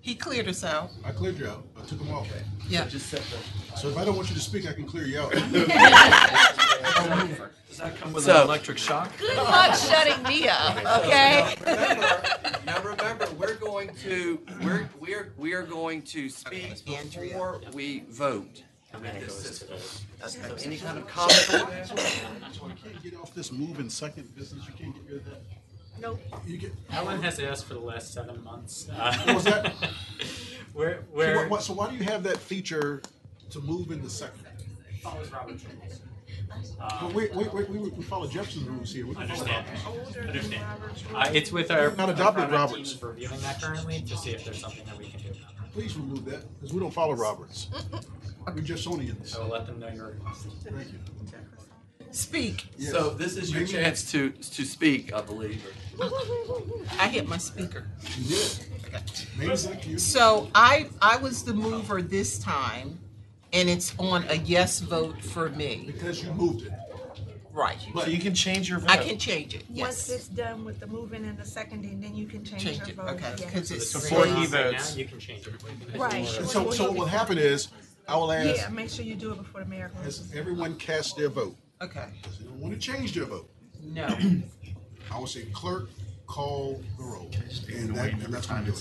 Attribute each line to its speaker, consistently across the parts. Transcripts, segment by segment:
Speaker 1: He cleared us out.
Speaker 2: I cleared you out. I took them off.
Speaker 1: Yeah.
Speaker 3: Just set the.
Speaker 2: So if I don't want you to speak, I can clear you out.
Speaker 3: Does that come with
Speaker 4: So-
Speaker 3: an electric shock?
Speaker 5: Good luck shutting me up, okay?
Speaker 4: Now, remember, now remember, we're going to, we're, we're, we are going to speak
Speaker 1: Andrea.
Speaker 4: before we vote. So Any kind of comment?
Speaker 2: So I can't get off this move in second business. You can't get rid of that.
Speaker 1: Nope.
Speaker 2: You get.
Speaker 6: Ellen has asked for the last seven months. Uh,
Speaker 2: What was that?
Speaker 6: Where,
Speaker 2: So,
Speaker 6: where?
Speaker 2: what- what- so why do you have that feature to move in the second?
Speaker 6: follows Robert Charles.
Speaker 2: But wait, wait, wait. We, we follow Jefferson's rules here. We can follow
Speaker 6: Understand.
Speaker 2: Robert's.
Speaker 6: Understand. Uh, it's with our.
Speaker 2: Not adopted,
Speaker 6: our product team
Speaker 2: Roberts.
Speaker 6: is Reviewing that currently to see if there's something that we can do about it.
Speaker 2: Please remove that because we don't follow Roberts. We're Jeffersonians.
Speaker 6: I will let them know your request.
Speaker 2: Thank you.
Speaker 1: Speak.
Speaker 2: Yes.
Speaker 4: So this is your chance to, to speak, I believe.
Speaker 1: I hit my speaker.
Speaker 2: You did. Names like you.
Speaker 1: So I, I was the mover this time, and it's on a yes vote for me.
Speaker 2: Because you moved it.
Speaker 1: Right.
Speaker 2: But
Speaker 3: So you can change your vote.
Speaker 1: I can change it, yes.
Speaker 7: Once it's done with the moving and the seconding, then you can change your
Speaker 1: Change it,
Speaker 7: vote.
Speaker 1: okay,
Speaker 7: Yeah.
Speaker 1: because it's.
Speaker 3: Before he
Speaker 1: says-
Speaker 6: Right
Speaker 3: votes.
Speaker 6: now, you can change it.
Speaker 7: Right.
Speaker 2: And So, so what will happen is, I will ask,
Speaker 7: Yeah, make sure you do it before the mayor
Speaker 2: as
Speaker 7: closes.
Speaker 2: everyone cast their vote,
Speaker 1: Okay,
Speaker 2: because they don't want to change their vote,
Speaker 1: no.
Speaker 2: I will say clerk, call the roll. And that, and that's gonna do it.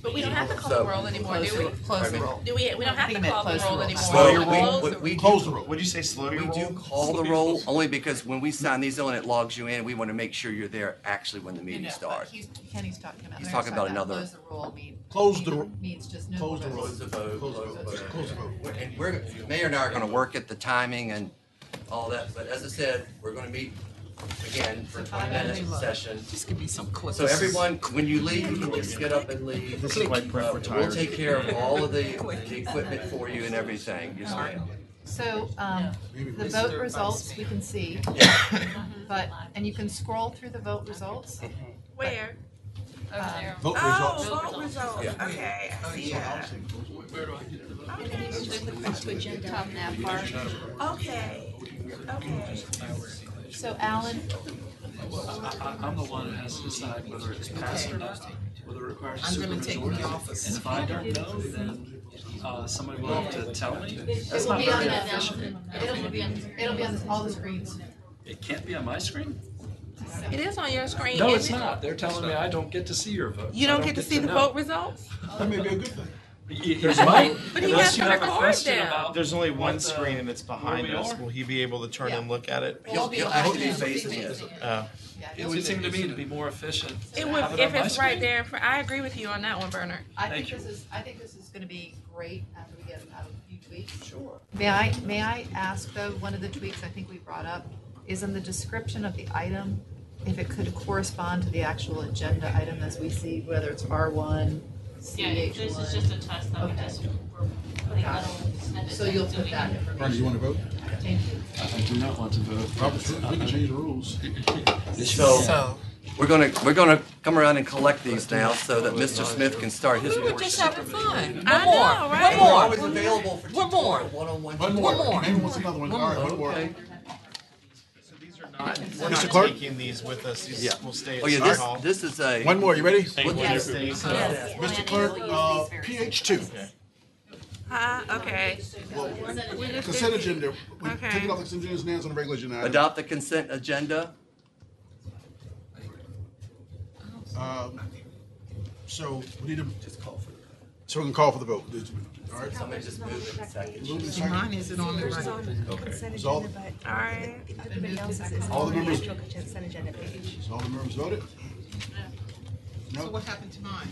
Speaker 8: But we don't have to call the roll anymore, do we?
Speaker 1: Close the roll.
Speaker 8: Do we, we don't have
Speaker 5: I think
Speaker 8: to
Speaker 5: it meant
Speaker 8: call the
Speaker 5: close the
Speaker 8: roll
Speaker 5: roll.
Speaker 8: anymore.
Speaker 3: Slow your
Speaker 4: Well,
Speaker 3: roll.
Speaker 4: we, we, we
Speaker 2: Close the
Speaker 4: do,
Speaker 2: roll.
Speaker 3: What'd you say, slow your
Speaker 4: we
Speaker 3: roll?
Speaker 4: do call the roll only because when we sign these on, it logs you in. We want to make sure you're there actually when the
Speaker 5: No, no,
Speaker 4: meeting
Speaker 5: but
Speaker 4: starts.
Speaker 5: he's- Kenny's talking about.
Speaker 4: He's
Speaker 5: they're
Speaker 4: talking about
Speaker 5: about
Speaker 4: another-
Speaker 5: Close the roll mean-
Speaker 2: Close the ro-
Speaker 5: Means just no.
Speaker 2: Close the
Speaker 5: votes.
Speaker 2: roll.
Speaker 4: Close the vote,
Speaker 2: Close the
Speaker 4: close the
Speaker 2: vote,
Speaker 4: vote.
Speaker 2: close the vote.
Speaker 4: And we're, the mayor and I are gonna work at the timing and all that, but as I said, we're gonna meet again for twenty minutes of session.
Speaker 1: Just give me some clips.
Speaker 4: So everyone, when you leave, you can just get up and leave.
Speaker 3: This is like
Speaker 4: Uh,
Speaker 3: prep for
Speaker 4: We'll
Speaker 3: tires.
Speaker 4: take care of all of the, the equipment for you and everything, yes ma'am.
Speaker 5: So, um,
Speaker 2: Maybe
Speaker 5: the
Speaker 2: we-
Speaker 5: vote results, we can see, but, and you can scroll through the vote results. Um,
Speaker 7: Where?
Speaker 8: Over there.
Speaker 2: Vote results.
Speaker 7: Oh, vote results, okay,
Speaker 1: Oh,
Speaker 7: I see that. Okay,
Speaker 8: Top nap bar.
Speaker 7: okay, okay.
Speaker 5: So Alan,
Speaker 3: I, I'm the one who has to decide whether it's passed or not, whether it requires a
Speaker 1: I'm gonna take the
Speaker 3: supermajority.
Speaker 1: office.
Speaker 3: And if I don't know, then, uh, somebody will have to tell me. That's
Speaker 5: will
Speaker 3: not
Speaker 5: be
Speaker 3: very
Speaker 5: on that
Speaker 3: efficient.
Speaker 5: it'll be on, it'll be on all the screens.
Speaker 3: It can't be on my screen?
Speaker 8: It is on your screen,
Speaker 3: No, it's
Speaker 8: isn't it?
Speaker 3: not. They're telling me I don't get to see your vote.
Speaker 8: You don't get to see the vote results?
Speaker 2: That may be a good thing.
Speaker 3: There's my,
Speaker 8: But he
Speaker 3: unless
Speaker 8: has
Speaker 3: you
Speaker 8: to
Speaker 3: have a
Speaker 8: record
Speaker 3: question
Speaker 8: them.
Speaker 3: about.
Speaker 9: There's only
Speaker 3: what
Speaker 9: one
Speaker 3: the-
Speaker 9: screen and it's behind
Speaker 3: where we
Speaker 9: us.
Speaker 3: are.
Speaker 9: Will he be able to turn
Speaker 5: Yeah.
Speaker 9: and look at it?
Speaker 4: You'll- you'll- I hope you face it.
Speaker 3: Uh,
Speaker 9: Oh.
Speaker 5: Yeah,
Speaker 3: It would seem to me to be more efficient. to
Speaker 8: It would,
Speaker 3: have
Speaker 8: if
Speaker 3: on my
Speaker 8: it's right
Speaker 3: screen.
Speaker 8: there, for- I agree with you on that one, Bernard.
Speaker 5: I
Speaker 3: Thank
Speaker 5: think
Speaker 3: you.
Speaker 5: this is, I think this is gonna be great after we get out of a few tweaks.
Speaker 4: Sure.
Speaker 5: May I, may I ask though, one of the tweaks I think we brought up is in the description of the item, if it could correspond to the actual agenda item as we see, whether it's R one, C H one.
Speaker 10: a test
Speaker 5: that we Okay. just- So you'll put that
Speaker 2: Ronnie, you
Speaker 5: information.
Speaker 2: wanna vote?
Speaker 5: Thank you.
Speaker 3: I do not want to vote.
Speaker 2: Robert's rules, we can change the rules.
Speaker 4: So, we're gonna, we're gonna come around and collect these now so that Mr. Smith can start his.
Speaker 1: We were just having fun.
Speaker 8: I
Speaker 1: One more,
Speaker 8: know, right?
Speaker 1: one
Speaker 4: We're always
Speaker 1: more.
Speaker 4: available for
Speaker 1: One more.
Speaker 4: tutorial, one-on-one.
Speaker 2: One
Speaker 1: One
Speaker 2: more.
Speaker 1: more.
Speaker 2: Maybe wants another one. All right, one more.
Speaker 4: Okay.
Speaker 9: So these are not, we're
Speaker 2: Mr.
Speaker 9: not
Speaker 2: Clerk?
Speaker 9: taking these with us. These
Speaker 4: Yeah.
Speaker 9: will stay at
Speaker 4: Oh yeah,
Speaker 9: City Hall.
Speaker 4: this, this is a.
Speaker 2: One more, you ready?
Speaker 4: What-
Speaker 2: Mr. Clerk, uh, PH two,
Speaker 7: Huh, Uh, okay.
Speaker 2: consent agenda. We
Speaker 7: Okay.
Speaker 2: Take it off the consent agenda, it's on the regular agenda. item.
Speaker 4: Adopt the consent agenda.
Speaker 2: Um, So we need to. So we can call for the vote. All right.
Speaker 4: Somebody just move it a second.
Speaker 2: Move in second.
Speaker 1: Mine isn't on the
Speaker 7: First
Speaker 1: right.
Speaker 7: on the consent
Speaker 2: Resolve.
Speaker 7: agenda, but. All right. Everybody else's is
Speaker 2: All
Speaker 7: on
Speaker 2: the
Speaker 7: the
Speaker 2: members-
Speaker 7: actual consent agenda page.
Speaker 2: So all the members voted?
Speaker 1: So
Speaker 2: No?
Speaker 1: what happened to mine?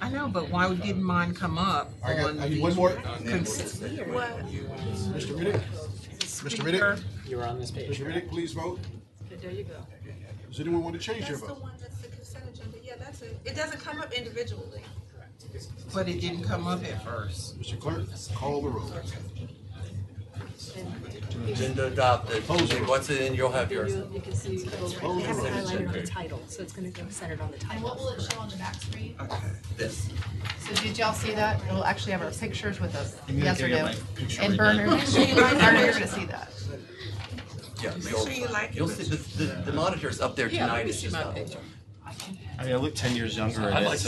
Speaker 1: I know, but why didn't mine come up
Speaker 2: I got,
Speaker 1: on
Speaker 2: I need one more.
Speaker 1: the consent?
Speaker 7: What?
Speaker 2: Mr. Riddick? Mr. Riddick?
Speaker 6: You were on this page.
Speaker 2: Mr. Riddick, please vote.
Speaker 7: There you go.
Speaker 2: Does anyone want to change their
Speaker 7: That's the
Speaker 2: vote?
Speaker 7: one that's the consent agenda, yeah, that's it. It doesn't come up individually.
Speaker 1: But it didn't come up at first.
Speaker 2: Mr. Clerk, call the roll.
Speaker 4: Agenda adopted. Once it in, you'll have yours.
Speaker 10: You can see both
Speaker 2: Close the roll.
Speaker 10: highlighted on the title, so it's gonna go centered on the
Speaker 5: And
Speaker 10: title.
Speaker 5: what will it show on the back screen?
Speaker 4: This.
Speaker 5: So did y'all see that? It'll actually have our pictures with us,
Speaker 9: need to
Speaker 5: yes or
Speaker 9: get
Speaker 5: no?
Speaker 9: my picture
Speaker 5: And
Speaker 9: right
Speaker 5: Bernard, Bernard, you're gonna see that.
Speaker 4: Yeah,
Speaker 7: Make
Speaker 4: you'll,
Speaker 7: sure you like it.
Speaker 4: you'll see, the, the, the monitor's up there
Speaker 1: Yeah,
Speaker 4: tonight.
Speaker 1: let me
Speaker 4: It's
Speaker 1: see
Speaker 4: just
Speaker 1: my
Speaker 4: not.
Speaker 1: picture.
Speaker 9: I mean, I look ten years younger.
Speaker 3: I'd
Speaker 9: in it,
Speaker 3: like to